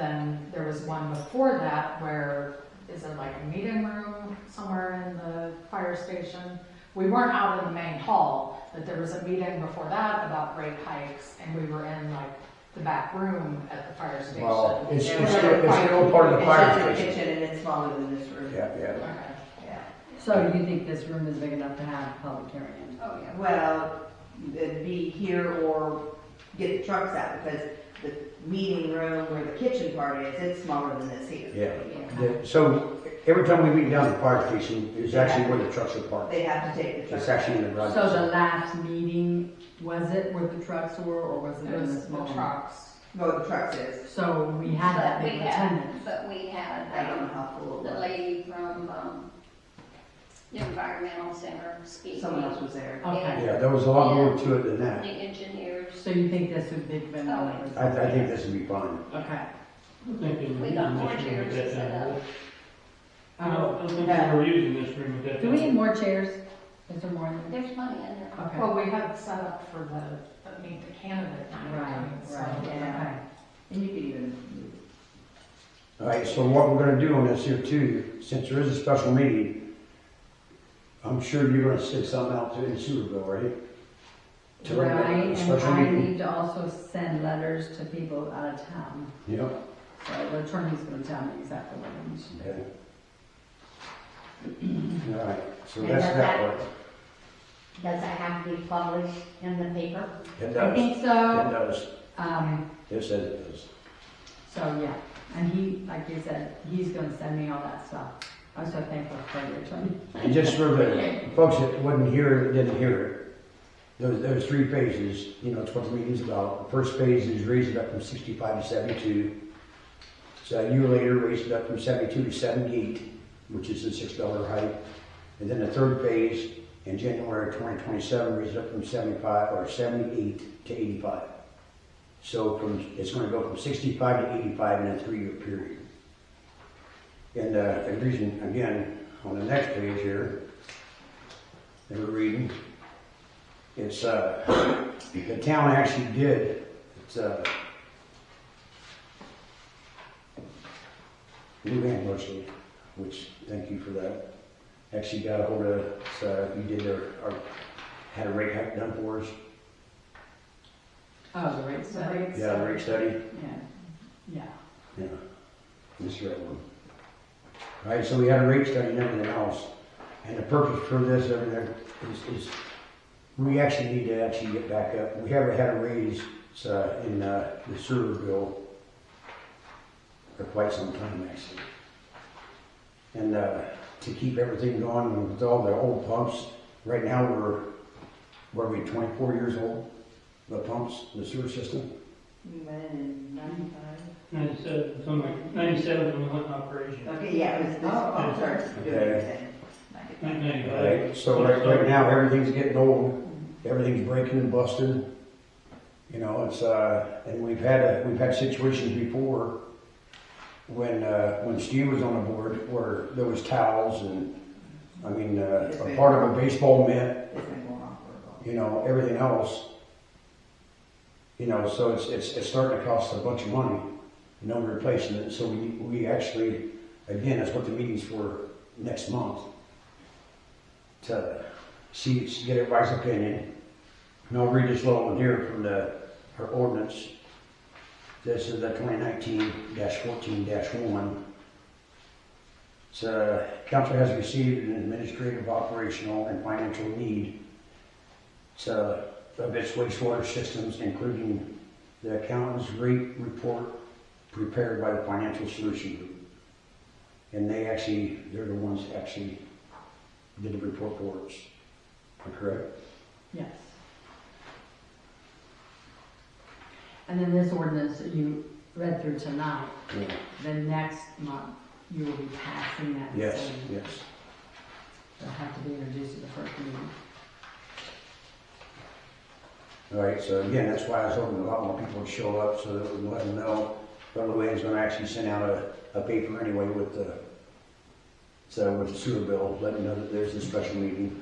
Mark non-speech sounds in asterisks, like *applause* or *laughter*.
then there was one before that where, is it like a meeting room somewhere in the fire station? We weren't out in the main hall, but there was a meeting before that about rate hikes, and we were in like the back room at the fire station. Well, it's, Yeah, it's we're still, it's still part of the It's in fire the station. kitchen and it's smaller than this room. Yeah, yeah. Okay. Yeah. So you think this room is big enough to have a public hearing? in? Oh, yeah. Well, it'd be here or get the trucks out because the meeting room where the kitchen part is, it's smaller than this here. Yeah. The- So every time we meet down at the fire station, it's actually where the trucks are parked. They have to take the It's trucks. out. actually in the garage. So the last meeting, was it where the trucks were, or was it It in was this the moment? trucks. Well, the trucks is. So we had that But big we had- attendance. But we had, I don't know um, how full it the was. lady from, um, the environmental center speaking. Someone else was there. Okay, Yeah, there was a lot more to it than The that. engineers, so you think this would be big enough? I, I think this would be fine. Okay. I think they were We got using more this room at chairs that to set time. up. I don't, I don't think Yeah. they were using this room at that time. Um, Do we need more chairs? Is there more in there? there's money in there. Okay, Well, we had set up for the, the meet the candidate night. right, so- right, okay. And you could even, All right, so what we're gonna do on this here too, since there is a special meeting, I'm sure you're gonna send something out to in Superville, right? To the Right, and special I meeting. need to also send letters to people out of town, Yep. so the attorney's gonna tell me exactly what I need to do. okay. *clears throat* All right, so And that's does that that- part. Does that have to be published in the paper? It I does, it think so, does, um, it says it does. so yeah, and he, like you said, he's gonna send me all that stuff. I'm so thankful for your attorney. And just for the folks that wasn't here, didn't hear it, those, those three phases, you know, it's what the meeting's about. The first phase is raise it up from sixty-five to seventy-two. So a year later, raise it up from seventy-two to seventy-eight, which is the six dollar hike. And then the third phase, in January of twenty twenty-seven, raise it up from seventy-five or seventy-eight to eighty-five. So from, it's gonna go from sixty-five to eighty-five in a three-year period. And, uh, the reason, again, on the next page here, that we're reading, it's, uh, the town actually did, it's, uh, Lou Ann Bushel, which, thank you for that, actually got a hold of, so you did their, our, had a rate hike done for us. Oh, the rates, So rates- Yeah, the rate study. yeah, yeah. Yeah, this red one. All right, so we had a rate study and everything else, and the purpose for this, everything, is, is we actually need to actually get back up. We haven't had a raise, uh, in, uh, the sewer bill for quite some time, actually. And, uh, to keep everything going with all the old pumps, right now, we're, what are we, twenty-four years old? The pumps, the sewer system? ninety-five. Ninety-seven, something like, ninety-seven when we went in operation. Okay, yeah, it was this, I'm sorry. Okay. Nineteen ninety-five. Right, so right, right now, everything's getting old, everything's breaking and busting. You know, it's, uh, and we've had, a- we've had situations before when, uh, when Steve was on the board where there was towels and, I mean, uh, a part of a baseball mitt, It's been going on for a while. you know, everything else. You know, so it's, it's, it's starting to cost a bunch of money, no replacing it, so we, we actually, again, that's what the meeting's for next month. To see, see- get everybody's opinion, and I'll read this little one here from the, our ordinance. This is the twenty nineteen fourteen one. So, council has received an administrative, operational, and financial need so, of its wastewater systems, including the accountant's rate report prepared by the Financial Solution Group. And they actually, they're the ones that actually did the report for us. Am I Correct? Yes. And then this ordinance that you read through tonight, Yeah. then next month, you will be passing that. Yes, same. yes. It'll have to be introduced at the first meeting. All right, so again, that's why I was hoping a lot more people would show up so that we let them know. But Luann's gonna actually send out a, a paper anyway with the, so with the sewer bill, letting them know that there's a special meeting.